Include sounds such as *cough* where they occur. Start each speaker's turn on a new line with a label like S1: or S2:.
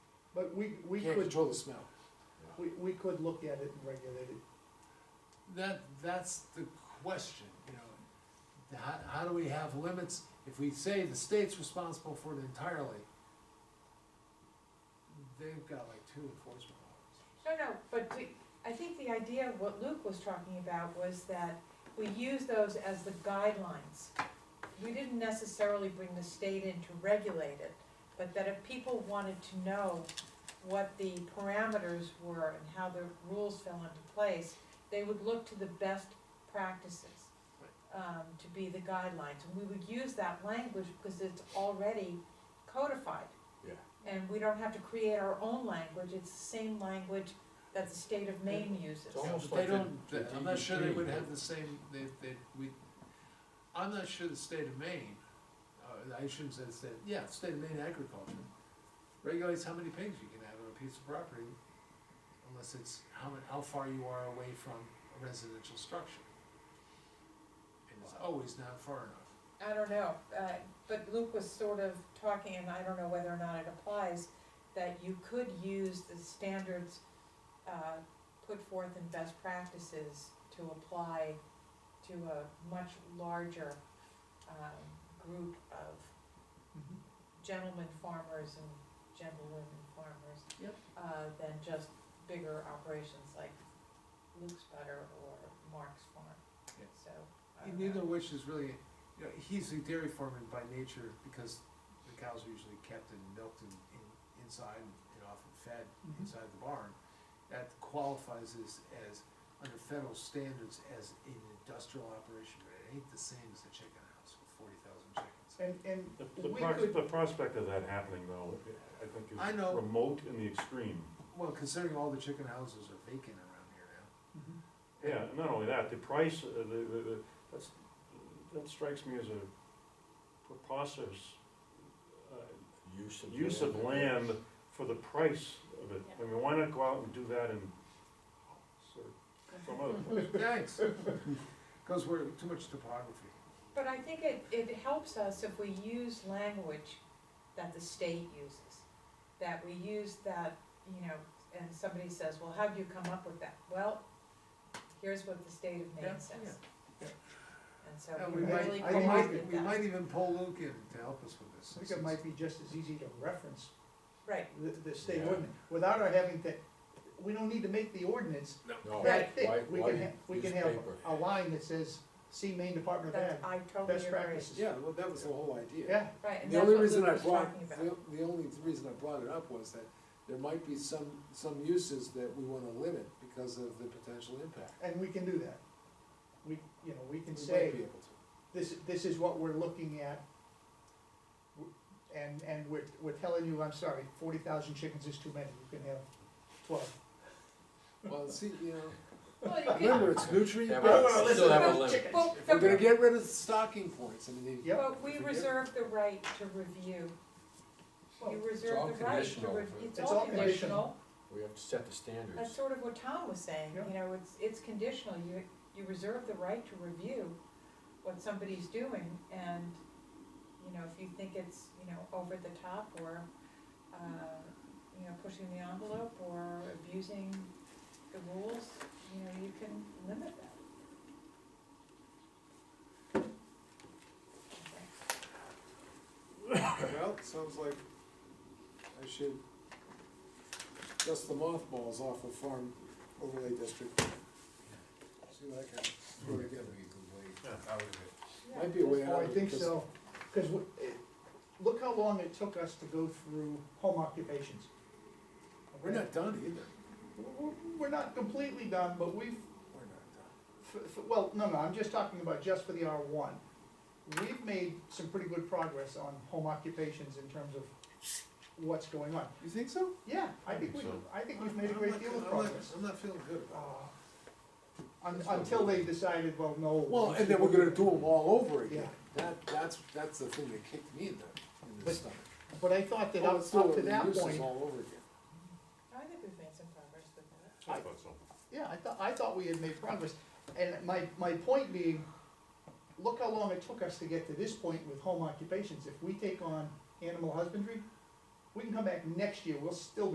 S1: But we, we
S2: Can't
S1: could,
S2: control the smell.
S1: we, we could look at it and regulate it.
S2: That, that's the question, you know. How, how do we have limits? If we say the state's responsible for it entirely, they've got like two enforcement officers.
S3: No, no, but do- I think the idea of what Luke was talking about was that we use those as the guidelines. We didn't necessarily bring the state in to regulate it, but that if people wanted to know what the parameters were and how the rules fell into place, they would look to the best practices um, to be the guidelines. And we would use that language because it's already codified.
S4: Yeah.
S3: And we don't have to create our own language, it's the same language that the state of Maine uses.
S4: It's almost
S2: But They
S4: like the-
S2: don't,
S4: the
S2: I'm not sure they would
S4: DEP.
S2: have the same, they, they, we, I'm not sure the state of Maine, uh, I shouldn't say the state, yeah, the state of Maine agriculture regulates how many pigs you can have on a piece of property unless it's how, mu- how far you are away from a residential structure. And it's always not far enough.
S3: I don't know, uh, but Luke was sort of talking, and I don't know whether or not it applies, that you could use the standards, uh, put forth in best practices to apply to a much larger, um, group of
S5: Mm-hmm.
S3: gentlemen farmers and gentlewomen farmers.
S2: Yep.
S3: Uh, than just bigger operations like Luke's Butter or Mark's Farm,
S2: Yeah.
S3: so. I
S2: And
S3: don't
S2: Neither
S3: know.
S2: of which is really, you know, he's a dairy farmer by nature because the cows are usually kept and milked and, and inside and often fed
S1: Mhm.
S2: inside the barn. That qualifies as, as, under federal standards, as an industrial operation, but it ain't the same as a chicken house with forty thousand chickens.
S1: And, and
S4: The, the
S1: we
S4: pros-
S1: could,
S4: the prospect of that happening though, I think
S2: I know.
S4: is remote in the extreme.
S2: Well, considering all the chicken houses are vacant around here now.
S5: Mm-hmm.
S4: Yeah, and not only that, the price, uh, the, the, the- that's, that strikes me as a preposterous uh,
S5: Use of.
S4: use of land for the price of it. I mean, why not go out and do that in sort of some other place?
S2: Thanks. Goes where, too much topography.
S3: But I think it, it helps us if we use language that the state uses, that we use that, you know, and somebody says, well, how do you come up with that? Well, here's what the state of
S2: Yeah,
S3: Maine says.
S1: yeah,
S3: And so
S2: And
S3: we
S2: we might,
S3: really
S1: I think
S2: we
S3: come up
S2: might,
S3: with
S2: we might
S3: that,
S2: even pull Luke in to help us with this.
S1: I think it might be just as easy to reference
S3: right,
S1: the, the state
S5: Yeah.
S1: ordinance, without our having to, we don't need to make the ordinance
S5: No,
S1: that thick.
S5: why,
S1: We
S5: why
S1: can, ha- we
S5: use
S1: can have
S5: paper?
S1: a line that says, see Maine Department of Ag,
S3: that's, I totally agree.
S1: best practices.
S6: Yeah, well, that was the whole idea.
S1: Yeah,
S3: Right, and
S6: The
S3: that's
S6: only
S3: what
S6: reason
S3: Luke
S6: I
S3: was
S6: brought,
S3: talking about.
S6: the, the only reason I brought it up was that there might be some, some uses that we wanna limit because of the potential impact.
S1: and we can do that. We, you know, we
S6: We
S1: can say,
S6: might be able to.
S1: this, this is what we're looking at. w- And, and we're, we're telling you, I'm sorry, forty thousand chickens is too many, you can have twelve.
S3: *laughs*
S6: Well, see, you know,
S3: Well, you
S6: remember, it's nutrient.
S5: Yeah,
S1: I don't wanna
S5: but
S1: listen
S5: still have
S1: about
S5: a limit.
S3: could- well,
S6: If we're
S3: the-
S6: gonna get rid of the stocking points, I mean, they-
S1: Yep.
S3: But we
S6: Forget.
S3: reserve the right to review, you
S5: all
S3: reserve the right to
S5: conditional.
S3: review, it's
S1: It's
S3: all
S1: all conditional.
S3: conditional,
S5: We have to set the standards.
S3: that's sort of what Tom was saying,
S1: Yeah.
S3: you know, it's, it's conditional, you, you reserve the right to review what somebody's doing, and, you know, if you think it's, you know, over the top, or, uh, you know, pushing the envelope, or abusing the rules, you know, you can limit that. Okay.
S6: well, it sounds like I should dust the mothballs off of farm overlay district. See what I can throw together.
S3: Yeah.
S6: Might be a way
S1: Oh,
S6: out
S1: I
S6: of it.
S1: think
S6: because-
S1: so, cause w- it- look how long it took us to go through home occupations.
S6: We're not done either.
S1: We're- We're not completely done, but we've,
S6: We're not done.
S2: uh?
S1: f- f- well, no, no, I'm just talking about just for the R one. We've made some pretty good progress on home occupations in terms of what's going on.
S6: You think so?
S1: Yeah, I think we, I think we've made a great deal of progress.
S2: I'm not feeling good
S1: Uh,
S2: about
S1: un- Until they decided, well, no.
S6: Well, and then we're gonna do them all over
S1: Yeah.
S6: again. That, that's, that's the thing that kicked me in the, in the
S1: But-
S6: stomach.
S1: But I thought that
S6: Oh,
S1: up,
S6: let's do
S1: up
S6: it
S1: to
S6: with
S1: that
S6: uses
S1: point,
S6: All over again.
S3: I think we've made some progress with that.
S4: I thought so.
S1: yeah, I thought, I thought we had made progress. And my, my point being, look how long it took us to get to this point with home occupations. If we take on animal husbandry, we can come back next year, we'll still